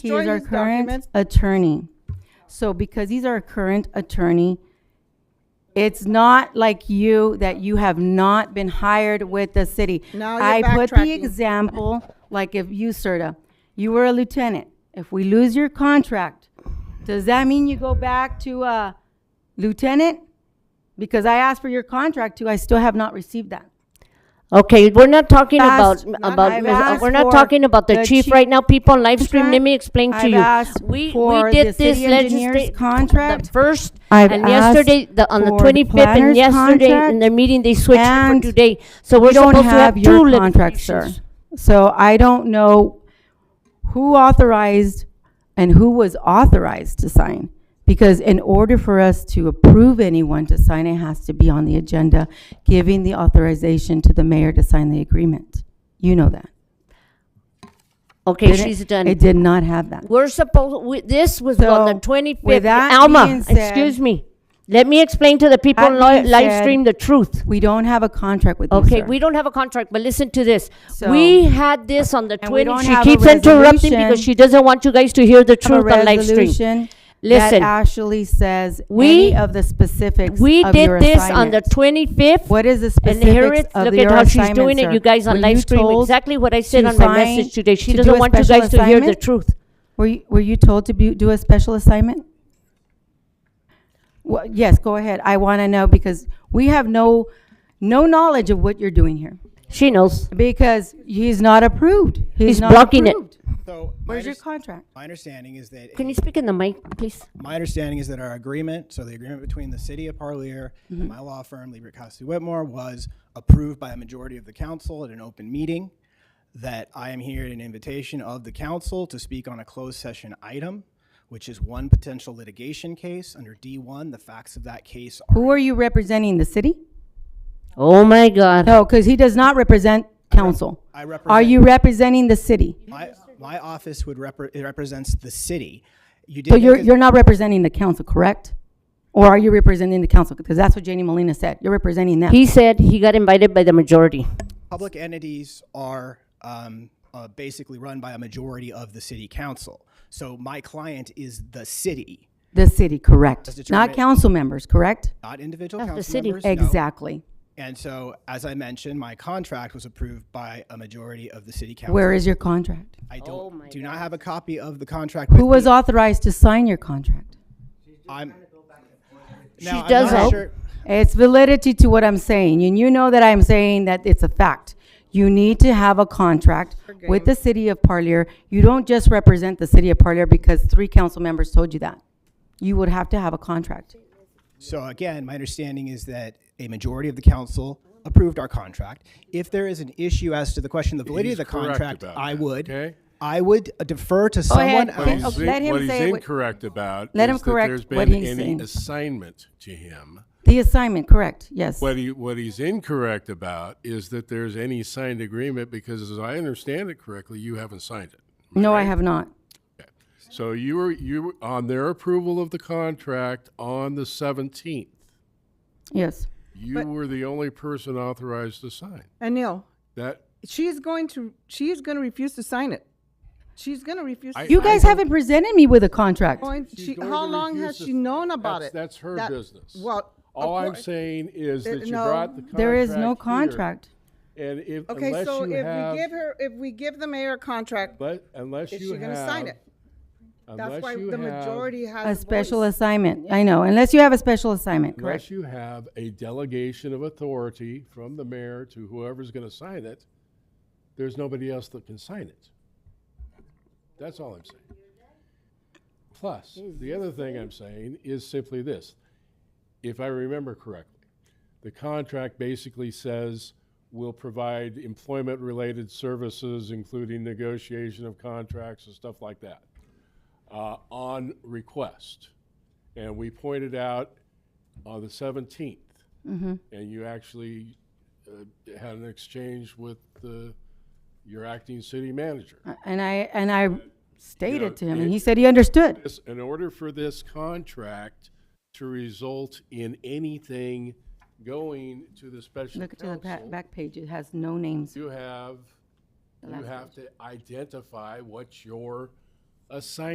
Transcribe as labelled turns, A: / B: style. A: He
B: Join
A: is our
B: his
A: current
B: documents.
A: attorney. So because he's our current attorney, it's not like you that you have not been hired with the city.
B: Now you're
A: I put the
B: backtracking.
A: example, like if you, Serta, you were a lieutenant. If we lose your contract, does that mean you go back to a lieutenant? Because I asked for your contract too, I still have not received that.
C: Okay, we're not talking about,
A: Asked-
C: about,
A: I've
C: Ms. Uh,
A: asked
C: we're not
A: for
C: talking about the
A: the
C: chief
A: chief
C: right now, people on live stream, let me explain to
A: I've
C: you.
A: asked
C: We,
A: for the
C: we did this
A: city engineer's
C: legislate, the
A: contract.
C: first,
A: I've
C: and
A: asked
C: yesterday, the, on the
A: for the
C: twenty-fifth, and
A: planner's
C: yesterday, in
A: contract,
C: their meeting, they switched it for
A: and
C: today. So
A: We
C: we're
A: don't
C: supposed to have
A: have
C: two
A: your contract, sir.
C: litigations.
A: So I don't know who authorized and who was authorized to sign. Because in order for us to approve anyone to sign, it has to be on the agenda, giving the authorization to the mayor to sign the agreement. You know that.
C: Okay,
A: Didn't-
C: she's done.
A: It did not have that.
C: We're supposed, we- this was on the
A: So,
C: 25th.
A: with that being
C: Alma,
A: said-
C: excuse me. Let me explain to the people
A: That
C: on li-
A: being
C: live
A: said-
C: stream the truth.
A: We don't have a contract with you,
C: Okay,
A: sir.
C: we don't have a contract, but listen to this.
A: So-
C: We had this on the
A: And we
C: 20,
A: don't
C: she
A: have a
C: keeps interrupting because
A: resolution.
C: she doesn't want you guys to hear the
A: have a
C: truth on live stream.
A: resolution
C: Listen.
A: that actually says
C: We-
A: any of the specifics
C: We
A: of your
C: did this on the
A: assignment.
C: 25th.
A: What is the
C: And here
A: specifics
C: it's,
A: of
C: look
A: your
C: at how she's
A: assignment,
C: doing
A: sir?
C: it, you guys on
A: Were
C: live
A: you
C: stream,
A: told
C: exactly what I said
A: to
C: on my
A: sign-
C: message today.
A: to
C: She
A: do
C: doesn't
A: a
C: want you
A: special
C: guys to hear the
A: assignment?
C: truth.
A: Were you, were you told to bu- do a special assignment? Well, yes, go ahead. I want to know because we have no, no knowledge of what you're doing here.
C: She knows.
A: Because he's not approved.
C: He's
A: not
C: blocking it.
A: approved.
D: So my,
A: Where's your
D: unders-
A: contract?
D: my understanding is that
C: Can you speak in the mic, please?
D: my understanding is that our agreement, so the agreement between the city of Parlier
A: Mm-hmm.
D: and my law firm, Liebert Costi Whitmore, was approved by a majority of the council at an open meeting. That I am here at an invitation of the council to speak on a closed session item, which is one potential litigation case under D1. The facts of that case are
A: Who are you representing? The city?
C: Oh, my God.
A: No, because he does not represent council.
D: I
A: Are
D: represent-
A: you representing the city?
D: my, my office would repre- it represents the city. You did
A: So
D: make
A: you're,
D: a-
A: you're not representing the council, correct? Or are you representing the council? Because that's what Janie Molina said. You're representing them.
C: He said he got invited by the majority.
D: public entities are um, uh, basically run by a majority of the city council. So my client is the city,
A: The city, correct. Not
D: determinate-
A: council members, correct?
D: not individual
C: the
D: council
C: city.
D: members. no.
A: Exactly.
D: And so, as I mentioned, my contract was approved by a majority of the city council.
A: Where is your contract?
D: I don't
C: Oh my
D: do not have a copy of the contract. With
A: Who was
D: me.
A: authorized to sign your contract?
D: I'm. She
C: does help.
A: It's validity to what I'm saying, and you know that I'm saying that it's a fact. You need to have a contract with the city of Parlier. You don't just represent the city of Parlier because three council members told you that. You would have to have a contract.
D: So again, my understanding is that a majority of the council approved our contract. If there is an issue as to the question of the validity of the
E: He's correct
D: contract,
E: about
D: I
E: that,
D: would,
E: okay?
D: I would defer to
A: ahead,
D: someone
A: Ken.
E: What
A: Okay,
D: else.
E: he's,
A: let him
E: what he's
A: say what-
E: incorrect about
A: Let
E: is
A: him correct
E: that there's been
A: what he's
E: any
A: saying.
E: assignment to him.
A: The assignment, correct, yes.
E: What he what he's incorrect about is that there's any signed agreement because, as I understand it correctly, you haven't signed it.
A: No, I have not.
E: So you were you were on their approval of the contract on the 17th.
A: Yes.
E: You were the only person authorized to sign
B: Anil,
E: that.
B: she is going to, she is going to refuse to sign it. She's going to refuse. to
E: I-
A: You
B: sign
A: guys
B: it.
A: haven't presented me with a contract.
B: Going-
E: She's
B: she-
E: going
B: how
E: to
B: long has
E: refuse to-
B: she known about
E: that's,
B: it?
E: That's her
B: That-
E: business.
B: Well, of
E: all I'm
B: cour-
E: saying is
B: Uh,
E: that you
B: no.
E: brought the contract.
A: There is no
E: here,
A: contract.
E: And if
B: Okay,
E: unless
B: so if
E: you
B: we
E: have,
B: give her, if we give the mayor a contract,
E: But unless
B: is
E: you
B: she
E: have,
B: going to sign it? That's
E: unless
B: why
E: you
B: the
E: have-
B: majority has
A: A special
B: voice.
A: assignment, I know, unless you have a special assignment, correct?
E: unless you have a delegation of authority from the mayor to whoever's going to sign it, there's nobody else that can sign it. That's all I'm saying. Plus, the other thing I'm saying is simply this: if I remember correctly, the contract basically says we'll provide employment-related services, including negotiation of contracts and stuff like that, uh, on request. And we pointed out on uh, the 17th,
A: Mm-hmm.
E: and you actually uh, had an exchange with the, your acting city manager.
A: Uh, And I, and I stated to him, and
E: it-
A: he said he understood.
E: This- In order for this contract to result in anything going to the special
A: Look to the back,
E: counsel,
A: back page, it has no names.
E: you have, you have to identify what your assign